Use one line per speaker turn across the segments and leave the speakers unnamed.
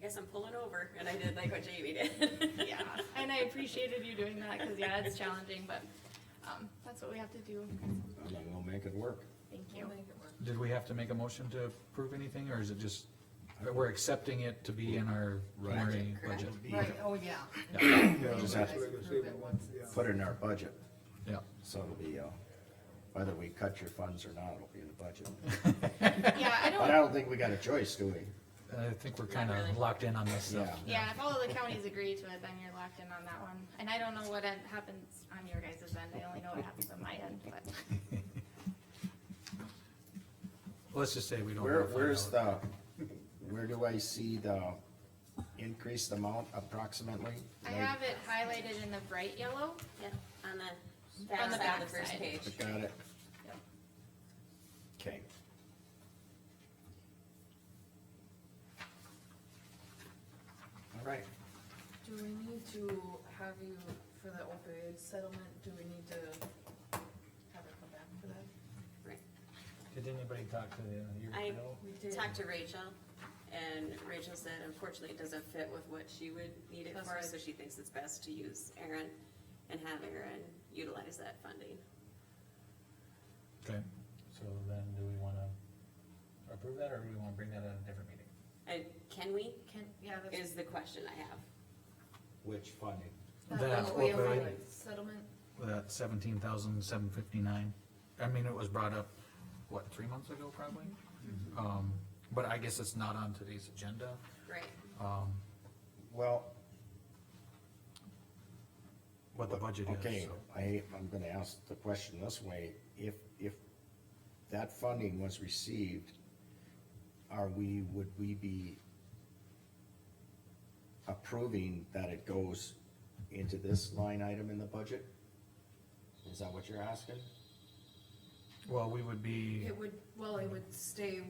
guess I'm pulling over, and I did like what Jamie did.
Yeah, and I appreciated you doing that, cause yeah, it's challenging, but, um, that's what we have to do.
And then we'll make it work.
Thank you.
Did we have to make a motion to approve anything, or is it just, that we're accepting it to be in our preliminary budget?
Right, oh, yeah.
We'll Just have to put it in our budget,
Yeah,
so it'll be, uh, whether we cut your funds or not, it'll be in the budget.
Yeah, I
But I
don't,
don't think we got a choice, do we?
I think we're kind
Not really.
of locked in on this stuff.
Yeah.
yeah, if all of the counties agree to it, then you're locked in on that one, and I don't know what en- happens on your guys' end, I only know what happens on my end, but.
Let's just say we don't.
Where,
wanna find
where's
out.
the, where do I see the increased amount approximately?
I have it highlighted in the bright yellow,
Yeah, on the back
On the
side of the
back
first
side.
page.
Got it?
Yep.
Okay. All right,
Do we need to have you, for the opioid settlement, do we need to have her come back for that?
Right.
Did anybody talk to the, your
I-
bill?
We did.
Talked to Rachel, and Rachel said unfortunately it doesn't fit with what she would need it
That's
for,
right.
so she thinks it's best to use Aaron and have Aaron utilize that funding.
Okay,
So then do we wanna approve that or do we wanna bring that at a different meeting?
And can we,
Can, yeah, that's.
is the question I have.
Which funding?
That
opioid
opioid.
Settlement,
that seventeen thousand seven fifty-nine, I mean, it was brought up, what, three months ago probably?
Mm-hmm.
Um, but I guess it's not on today's agenda,
Right.
um,
well,
what the budget is.
okay,
so.
I, I'm gonna ask the question this way, if, if that funding was received, are we, would we be approving that it goes into this line item in the budget? Is that what you're asking?
Well, we would be,
it would, well, it would stay,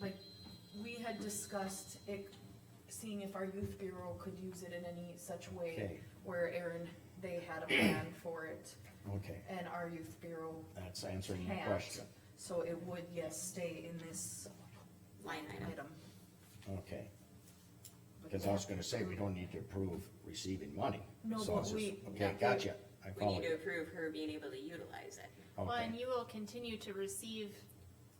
like, we had discussed it, seeing if our youth bureau could use it in any such way
Okay.
where Aaron, they had a plan for it,
Okay,
and our youth bureau
that's answering your
can't.
question,
So it would, yes, stay in this
Line item.
item.
okay. Cause I was gonna say, we don't need to approve receiving money.
No,
So it's
but
just-
we-
Okay, gotcha, I
We
follow
need to
you.
approve her being able to utilize it.
well, and
Okay,
you will continue to receive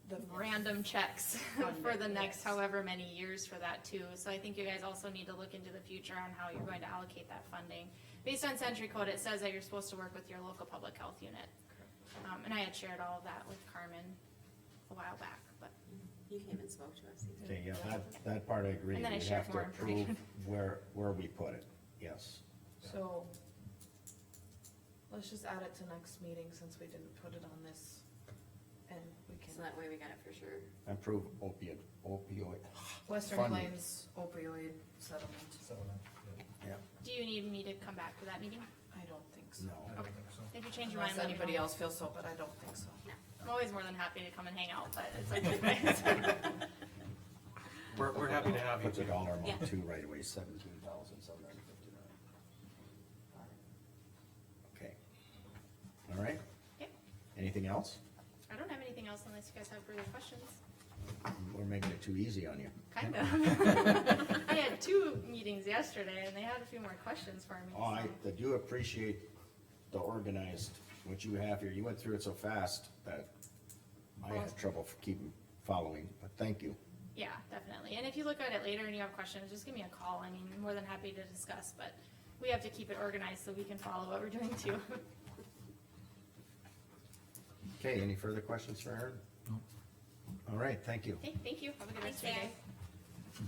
The
random checks
Funding,
for the next
yes.
however many years for that too. So I think you guys also need to look into the future on how you're going to allocate that funding. Based on century code, it says that you're supposed to work with your local public health unit. Um, and I had shared all of that with Carmen a while back, but
You came and spoke to us.
okay, yeah, that, that part I agree,
And then I
we
share
have to
more
approve where, where we put it, yes.
So, let's just add it to next meeting since we didn't put it on this, and we
So
can,
that way we got it for sure.
Approve opioid, opioid,
Western
Funding.
Plains opioid settlement,
So, yeah,
yeah,
do you need me to come back for that meeting?
I don't think so.
no,
I don't think so.
If you change your mind,
Unless
let me
anybody
know.
else feels so, but I don't think so.
I'm always more than happy to come and hang out, but it's like,
we're, we're happy to have you.
puts a dollar amount
Yeah.
too right away, seventeen thousand seven hundred fifty-nine. Okay, all right,
Okay.
anything else?
I don't have anything else unless you guys have further questions.
We're making it too easy on you.
Kind of. I had two meetings yesterday and they had a few more questions for me.
Oh, I,
so.
I do appreciate the organized, what you have here, you went through it so fast that I had trouble keeping, following, but thank you.
Yeah, definitely. And if you look at it later and you have questions, just give me a call. I mean, I'm more than happy to discuss, but we have to keep it organized so we can follow what we're doing too.
Okay, any further questions for Aaron?
No.
All right, thank you.
Okay, thank you. Have a good rest of your
Thanks,
day.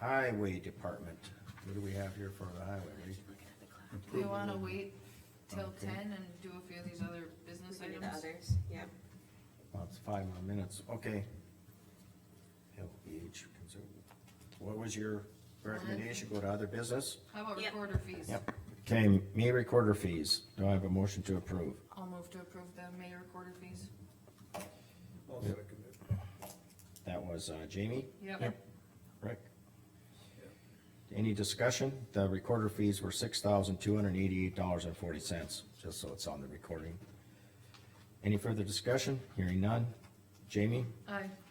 Highway Department, what do we have here for the highway? Reed?
Do we wanna wait till
Okay.
ten and do a few of these other business
Maybe the
items?
others, yeah.
Well, it's five more minutes, okay. LBH, consumer. what was your recommendation, go to other business?
How about
Yep.
recorder fees?
Yep, okay, May recorder fees, do I have a motion to approve?
I'll move to approve the May recorder fees.
That was uh, Jamie?
Yep.
Rick? Any discussion? The recorder fees were six thousand two hundred and eighty-eight dollars and forty cents, just so it's on the recording. Any further discussion? Hearing none. Jamie?
Aye.